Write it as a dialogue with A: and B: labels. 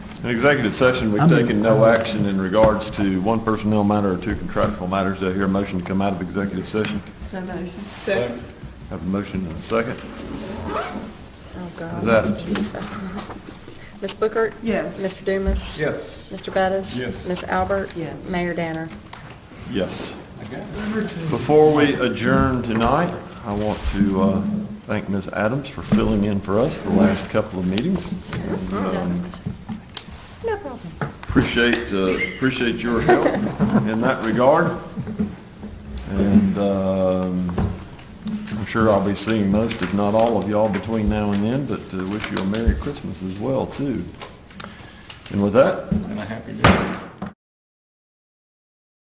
A: In executive session, we've
B: I'm in-
A: taken no action in regards to one personnel matter or two contractual matters. Do I hear a motion to come out of executive session?
C: So motion.
D: Second.
A: Have a motion and a second.
E: Oh,
A: That-
E: God. Ms. Bookert?
C: Yes.
E: Mr. Dumas?
D: Yes.
E: Mr. Bettis?
A: Yes.
E: Ms. Albert?
C: Yes.
E: Mayor Danner?
A: Yes.
D: Okay.
A: Before we adjourn tonight, I want to uh, thank Ms. Adams for filling in for us the last couple of meetings. And, um,
E: No problem.
A: Appreciate, uh, appreciate your help in that regard. And um, I'm sure I'll be seeing most, if not all of y'all between now and then, but uh, wish you a Merry Christmas as well, too. And with that,
D: And a happy day.